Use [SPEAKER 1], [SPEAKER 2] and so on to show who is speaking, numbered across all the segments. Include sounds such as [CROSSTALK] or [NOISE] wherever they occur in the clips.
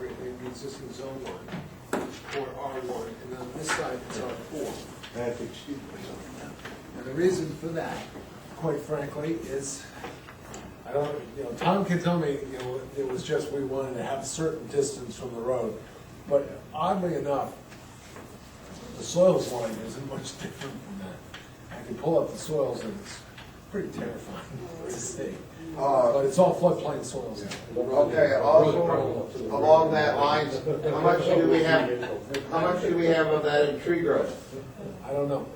[SPEAKER 1] the existing zone line, or R one, and on this side it's R four.
[SPEAKER 2] That's excuse me.
[SPEAKER 1] And the reason for that, quite frankly, is, I don't, you know, Tom can tell me, you know, it was just we wanted to have a certain distance from the road. But oddly enough, the soils line isn't much [LAUGHS] different from that. I can pull up the soils and it's pretty terrifying [LAUGHS] to see.
[SPEAKER 2] Uh,
[SPEAKER 1] But it's all floodplain soils.
[SPEAKER 2] Okay, also, along that lines, how much do we have, how much do we have of that in tree growth?
[SPEAKER 1] I don't know.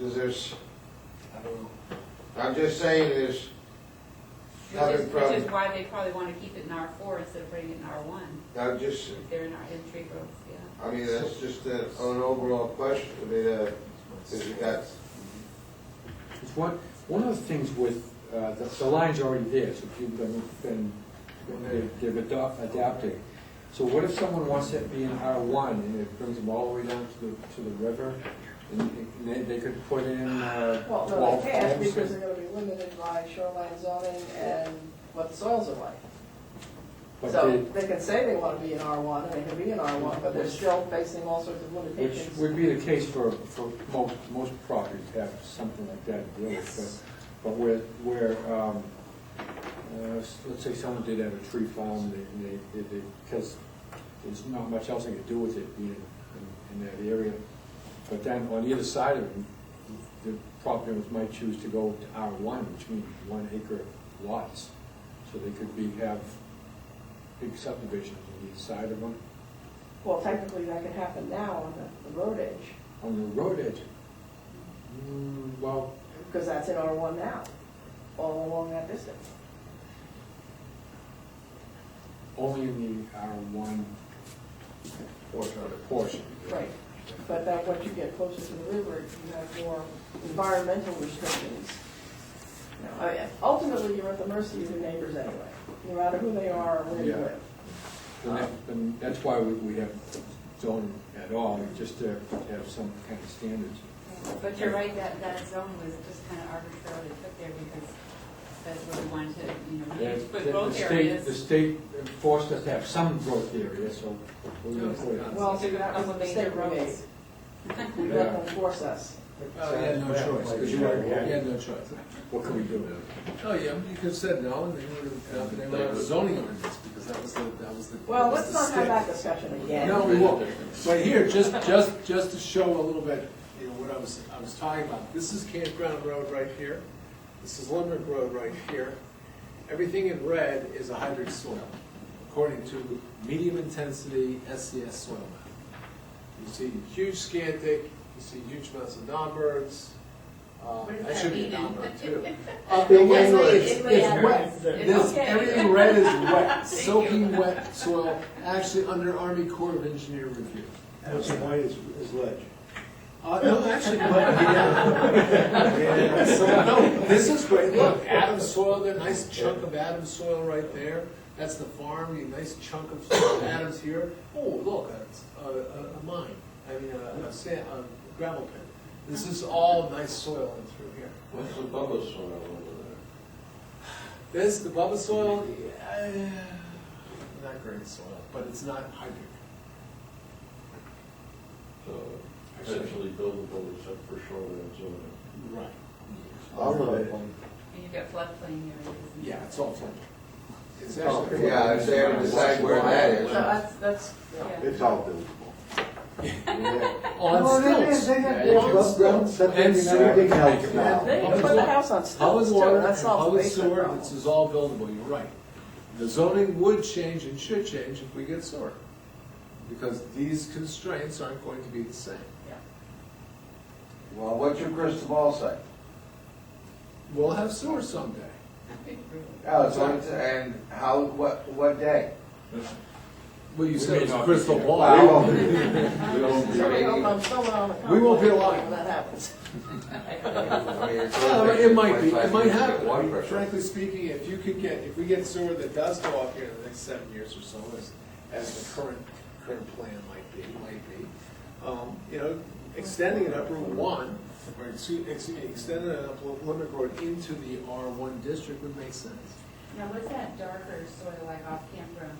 [SPEAKER 2] Is there's,
[SPEAKER 1] I don't know.
[SPEAKER 2] I'm just saying there's
[SPEAKER 3] Which is,
[SPEAKER 2] nothing
[SPEAKER 3] which is
[SPEAKER 2] from,
[SPEAKER 3] why they probably want to keep it in R four instead of putting it in R one,
[SPEAKER 2] I'm just,
[SPEAKER 3] if they're in our, in tree growth, yeah.
[SPEAKER 2] I mean, that's just a- an overall question, I mean, uh, 'cause you got,
[SPEAKER 4] It's one, one of the things with, uh, the, the line's already there, so people have been, been, they've adop- adapted. So what if someone wants it to be in R one, and it brings them all the way down to the, to the river, and and they, they could put in, uh,
[SPEAKER 5] Well,
[SPEAKER 4] twelve
[SPEAKER 5] no, they can't
[SPEAKER 4] homes?
[SPEAKER 5] because they're gonna be limited by shoreline zoning and what the soils are like.
[SPEAKER 4] But
[SPEAKER 5] So
[SPEAKER 4] they-
[SPEAKER 5] they can say they wanna be in R one, and they can be in R one, but they're still facing all sorts of
[SPEAKER 4] Which
[SPEAKER 5] limitations.
[SPEAKER 4] would be the case for, for most, most properties have something like that in village, but, but where, where, um, uh, s- let's say someone did have a tree farm, they, they- they, they, because there's not much else they could do with it being in, in that area. But then on either side of them, the property owners might choose to go to R one, which means one acre lots. So they could be, have big subdivisions on either side of them,
[SPEAKER 5] Well, technically, that can happen now on the, the road edge,
[SPEAKER 4] on the road edge. Mm, well,
[SPEAKER 5] because that's in R one now, all along that distance.
[SPEAKER 4] Only in the R one portion. Portion.
[SPEAKER 5] Right. But that, once you get closer to the river, you have more environmental restrictions. You know, I- Ultimately, you're at the mercy of your neighbors anyway, no matter who they are or where you
[SPEAKER 4] Yeah.
[SPEAKER 5] live.
[SPEAKER 4] And that- And that's why we, we have zoning at all, just to have some kind of standards.
[SPEAKER 3] But you're right, that, that zone was just kind of arbitrarily put there because that's what we wanted to, you know, we
[SPEAKER 4] Yeah,
[SPEAKER 3] need to
[SPEAKER 4] the-
[SPEAKER 3] put
[SPEAKER 4] the
[SPEAKER 3] growth
[SPEAKER 4] state- The
[SPEAKER 3] areas.
[SPEAKER 4] state forced us to have some growth area, so we're gonna put it.
[SPEAKER 5] Well,
[SPEAKER 3] We took a
[SPEAKER 5] that was a
[SPEAKER 3] couple major
[SPEAKER 5] mistake we made. [LAUGHS]
[SPEAKER 3] roads.
[SPEAKER 5] You let them force us.
[SPEAKER 1] Oh, you had no choice, 'cause you had, you had no choice.
[SPEAKER 4] What can we do?
[SPEAKER 1] Oh, yeah, you could have said no, and they would have, they would have zoning ordinance, because that was the, that was the.
[SPEAKER 5] Well,
[SPEAKER 1] that was
[SPEAKER 5] let's
[SPEAKER 1] the
[SPEAKER 5] not have
[SPEAKER 1] stick.
[SPEAKER 5] that discussion again.
[SPEAKER 1] No, we won't. But here, just, just, just to show a little bit, you know, what I was, I was talking about, this is Campground Road right here, this is Limerick Road right here. Everything in red is a hybrid soil, according to medium intensity SCS soil map. You see huge scantic, you see huge amounts of non-birds, uh,
[SPEAKER 3] What does
[SPEAKER 1] that
[SPEAKER 3] that
[SPEAKER 1] should be a
[SPEAKER 3] mean?
[SPEAKER 1] non-bird
[SPEAKER 3] [LAUGHS]
[SPEAKER 1] too. Uh,
[SPEAKER 2] Big
[SPEAKER 1] it's-
[SPEAKER 2] English.
[SPEAKER 1] it's-
[SPEAKER 3] It's
[SPEAKER 1] It's
[SPEAKER 3] wet.
[SPEAKER 1] wet, this,
[SPEAKER 3] Okay.
[SPEAKER 1] everything red
[SPEAKER 3] [LAUGHS]
[SPEAKER 1] is wet,
[SPEAKER 3] Thank
[SPEAKER 1] soaking
[SPEAKER 3] you.
[SPEAKER 1] wet soil, actually under Army Corps of Engineer review.
[SPEAKER 6] What's white is, is ledge.
[SPEAKER 1] Uh, no, actually, but, [LAUGHS] yeah. So, no, this is great, look, Adams soil, there, nice chunk of Adams soil right there, that's the farm, a nice chunk of soil, Adams here. Oh, look, it's a, a, a mine, I mean, a, a sand, a gravel pit. This is all nice soil in through here.
[SPEAKER 2] what's the bubble soil over
[SPEAKER 1] This, the Bubba soil, eh, not great soil, but it's not hydric.
[SPEAKER 7] So essentially buildable except for shoreline zoning.
[SPEAKER 1] Right.
[SPEAKER 2] there? All of it.
[SPEAKER 3] And you've got floodplain areas. and-
[SPEAKER 1] Yeah, it's all floodplain. It's
[SPEAKER 2] Oh,
[SPEAKER 1] actually.
[SPEAKER 2] Yeah, if they ever decide where that
[SPEAKER 5] So
[SPEAKER 2] is.
[SPEAKER 5] that's, that's,
[SPEAKER 3] Yeah.
[SPEAKER 2] It's all buildable.
[SPEAKER 5] [LAUGHS]
[SPEAKER 1] On stilts. And
[SPEAKER 2] everything
[SPEAKER 1] sewer.
[SPEAKER 2] else
[SPEAKER 5] they
[SPEAKER 2] now.
[SPEAKER 5] can put the house on
[SPEAKER 1] Public
[SPEAKER 5] stilts, too,
[SPEAKER 1] water
[SPEAKER 5] that
[SPEAKER 1] and
[SPEAKER 5] solves the
[SPEAKER 1] public
[SPEAKER 5] basement
[SPEAKER 1] sewer,
[SPEAKER 5] problem.
[SPEAKER 1] this is all buildable, you're right. The zoning would change and should change if we get sewer. Because these constraints aren't going to be the same.
[SPEAKER 2] Well, what's your crystal ball say?
[SPEAKER 1] We'll have sewer someday.
[SPEAKER 2] Oh, so it's, and how, what, what day?
[SPEAKER 1] Well, you
[SPEAKER 4] We
[SPEAKER 1] said
[SPEAKER 4] may
[SPEAKER 1] it's a
[SPEAKER 4] not be
[SPEAKER 1] crystal
[SPEAKER 4] there.
[SPEAKER 1] ball.
[SPEAKER 2] We [LAUGHS] won't be-
[SPEAKER 5] Somebody hope I'm still on the
[SPEAKER 1] We won't be alive.
[SPEAKER 5] contract When that happens.
[SPEAKER 2] I mean, it's
[SPEAKER 1] Well,
[SPEAKER 2] only
[SPEAKER 1] It might be, it
[SPEAKER 2] 25
[SPEAKER 1] might
[SPEAKER 2] years to get
[SPEAKER 1] happen. I
[SPEAKER 2] water
[SPEAKER 1] mean,
[SPEAKER 2] pressure.
[SPEAKER 1] Frankly speaking, if you could get, if we get sewer that does go up here in the next seven years or so, as, as the current, current plan might be, might be, um, you know, extending it up Route One, or excuse, excuse me, extending it up Limerick Road into the R one district would make sense.
[SPEAKER 3] Now, what's that darker soil like off campground